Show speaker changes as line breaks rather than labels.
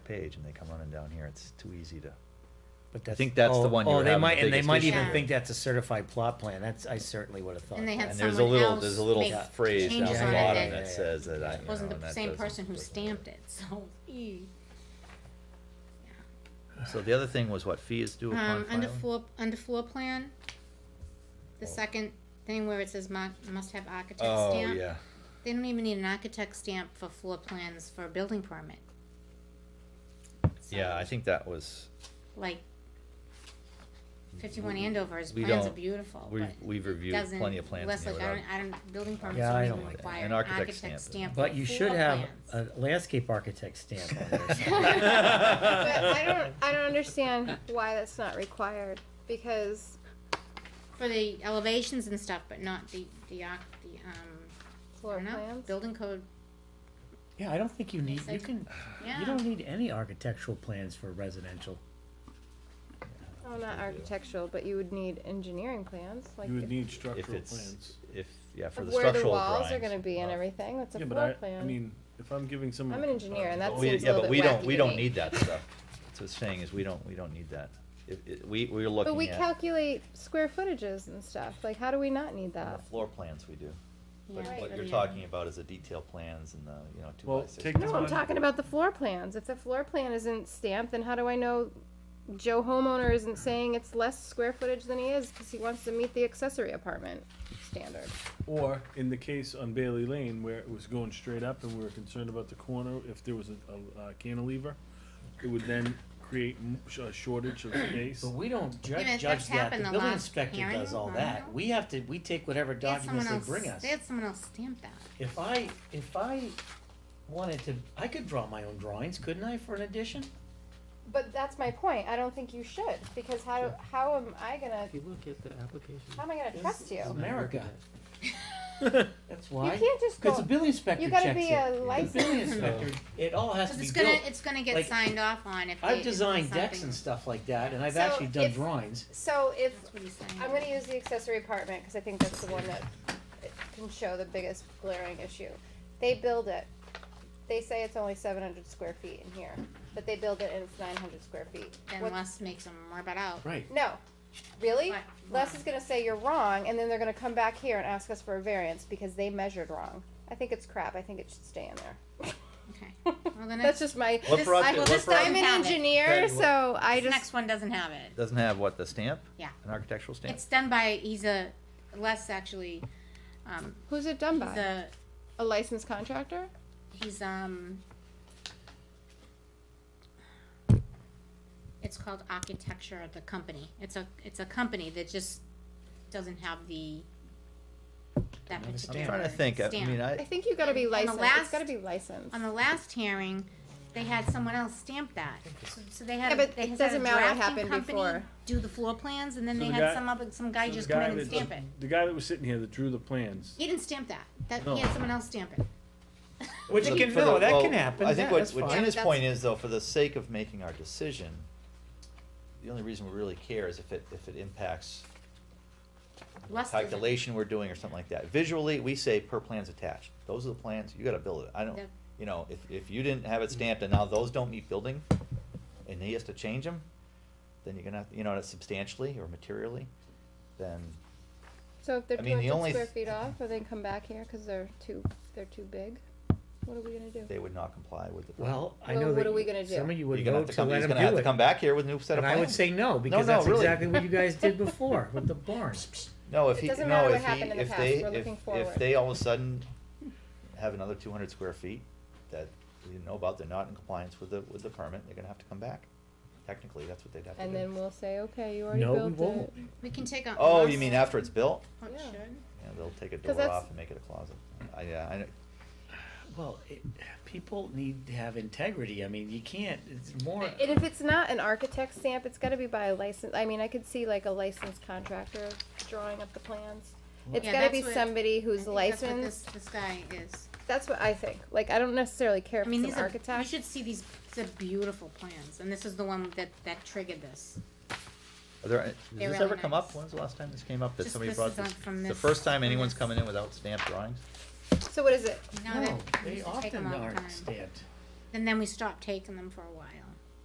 page and they come running down here, it's too easy to.
But that's,
think that's the
oh,
one you
Oh,
were
they
having
might,
the
and they
biggest
might
issue
even
with.
think that's a certified plot plan. That's I certainly would have thought.
And they
that.
had
And there's a
someone
little,
else
there's a little
make
phrase down
changes
the
on it
bottom
that-
that says that I. you
wasn't
know, and
the
that
same
doesn't-
person who
doesn't-
stamped it, so, ee.
So the other thing was what fees due upon
Um, under
filing?
floor, under floor plan, the
Oh.
second thing where it says mu- must have architect
Oh,
stamp.
yeah.
They don't even need an architect stamp for floor plans for a building permit.
Yeah,
So,
I think that was,
Like, fifty-one Andover's
We
plans are
don't-
beautiful,
we've,
Oh, but
we've reviewed
doesn't,
plenty of plans in
Westlake,
here
I
without.
don't, I don't, building permits
Yeah, I
don't
don't
even
like that.
require
An
an
architect
architect
stamp is-
stamp for floor
But
plans.
you should have a landscape architect stamp on there.
But I don't, I don't understand why that's not required, because,
For the elevations and stuff, but not the, the, arch- the, um, I
Floor
don't know,
plans?
building code,
Yeah, I don't think you need, you
Like-
can, you
yeah,
don't need any architectural plans for residential.
oh, not architectural, but you would need engineering plans, like.
You would need
If
structural
it's,
plans.
if, yeah, for
of
the
Where the
structural drawings.
walls are gonna be and everything, that's
Yeah,
a
but
floor
I,
plan.
I mean, if I'm giving someone.
I'm an engineer, and that's-
Oh,
We-
seems a
Yeah,
little
but
bit
we don't,
wacky
we
to
don't
me.
need that stuff. That's what it's saying, is we don't, we don't need that. If, it- we, we're
But we
looking at,
calculate square footages and stuff, like, how do we not need
on the
that?
floor plans we do. But
yeah.
what you're
yeah.
talking about is the detail plans and the, you know, two
Well,
by six.
take
No,
That's
I'm
fine.
talking about the floor plans, if the floor plan isn't stamped, then how do I know Joe homeowner isn't saying it's less square footage than he is, cause he wants to meet the accessory apartment standard?
Or in the case on Bailey Lane where it was going straight up and we were concerned about the corner, if there was a, a uh, cantilever, it would then create m- sh- a shortage of space.
But we don't ju-
Yeah, but
judge
that's
that,
happened
the
a
building
lot.
inspector
Hearing
does all
them, I
that,
don't
we have to, we take whatever
They had
documents
someone
they
else,
bring us.
they had someone else stamp that.
If I, if I wanted to, I could draw my own drawings, couldn't I, for an addition?
But that's my point. I don't think you should because how how am I gonna
If you look at the application.
how am I gonna trust you?
It's not
America.
recognized.
That's why.
can't just
Cause
go-
the building inspector
You
checks it.
gotta be a
The building
licensed.
inspector, it all has to
Cause
be
it's gonna,
built.
it's gonna get
Like,
signed off on if they.
I've
if it's
designed decks
something-
and stuff like that, and I've
So
actually done
if-
drawings.
So if
That's what he's saying.
I'm gonna use the accessory apartment because I think that's the one that it can show the biggest glaring issue. They build it. They say it's only 700 square feet in here, but they build it and it's 900 square feet.
Then
What-
Les makes them rub it out.
Right.
No. Really?
What?
Les is gonna say you're wrong, and then they're gonna come back here and ask us for a variance because they measured wrong. I think it's crap. I think it should stay in there.
Okay. Well, the
That's
next,
just my.
What
this-
brought
I-
you-
well,
what
this
brought you-
I'm an
have it.
engineer,
Right, what-
so I
This
just.
next one doesn't have it.
Doesn't have what, the stamp?
Yeah.
An architectural stamp?
It's done by, he's a, Les actually, um,
Who's it done
he's
by?
a,
A licensed contractor?
he's, um, it's called Architecture, the company. It's a, it's a company that just doesn't have the, that
have a
particular
stamp.
I'm trying to think, I
stamp.
mean,
I
I,
think you gotta be
On the
licensed. It's
last-
gotta be licensed.
on the last hearing, they had someone else stamp that. So, so they had,
Yeah, but
they
it
had a
doesn't matter what
drafting
happened
company
before.
do the floor plans, and then
So
they
the
had
guy-
some other, some guy
So the
just come in
that-
and stamp it.
The guy that was sitting here that drew the plans,
He didn't stamp that, that,
No.
he had someone else stamp it.
Which
For the-
can,
for the-
no, that
well,
can happen,
I
yeah,
think what,
that's
what
fine.
Gina's
Yeah,
point is though, for the sake of making our decision, the only reason we really care is if it, if it impacts
Les doesn't.
calculation we're doing or something like that. Visually, we say per plan's attached. Those are the plans, you gotta build it. I don't,
Yeah.
you know, if, if you didn't have it stamped and now those don't meet building and he has to change them, then you're gonna, have you know, substantially or materially, then
So if they're
I
two
mean, the
hundred
only
square
th-
feet off, or they come back here because they're too, they're too big, what are we gonna do?
they would not comply with the.
Well, I
Well,
know
what
that
are we
you-
gonna do?
some of you
You're
would
gonna
go
have to
to
come,
let
he's
him
gonna have
do
to
it.
come back here with a new set of
And
plans.
I would say no, because
no,
that's
really.
exactly what you guys did before with the barns.
No, if
It
he,
doesn't
no,
matter what
if he,
happened in the
if
past,
they,
we're
if,
looking
if
forward.
they all of a sudden have another two hundred square feet that we didn't know about, they're not in compliance with the, with the permit, they're gonna have to come back. Technically, that's what they'd have to do.
And then we'll say, okay, you already
No, we
built
won't.
it.
We can take a.
Oh,
Les-
you mean after it's built?
Oh, it
Yeah.
should.
Yeah, they'll take a
'Cause
door
that's-
off and make it a closet. I, yeah, I, know-
Well, it, people need to have integrity. I mean, you can't, it's more.
And if it's not an architect stamp, it's gotta be by a license, I mean, I could see like a licensed contractor drawing up the plans. It's
Yeah,
gotta
that's
be
what-
somebody who's
I think that's what
licensed,
This, this guy is.
that's what I think, like, I don't necessarily care
I
if
mean,
it's
these
an
are,
architect.
you should see these, these are beautiful plans, and this is the one that, that triggered this.
are there, does
They're
this
really
ever come up?
nice.
When's the last time this came up that
Just
somebody
this
brought
is on-
this?
from
The
this-
first time
from
anyone's
this.
coming in without stamped drawings?
So what is it?
Now
No,
that-
they
used to take
often
'em all the
aren't
time.
stamped.
And then we stopped taking them for a while.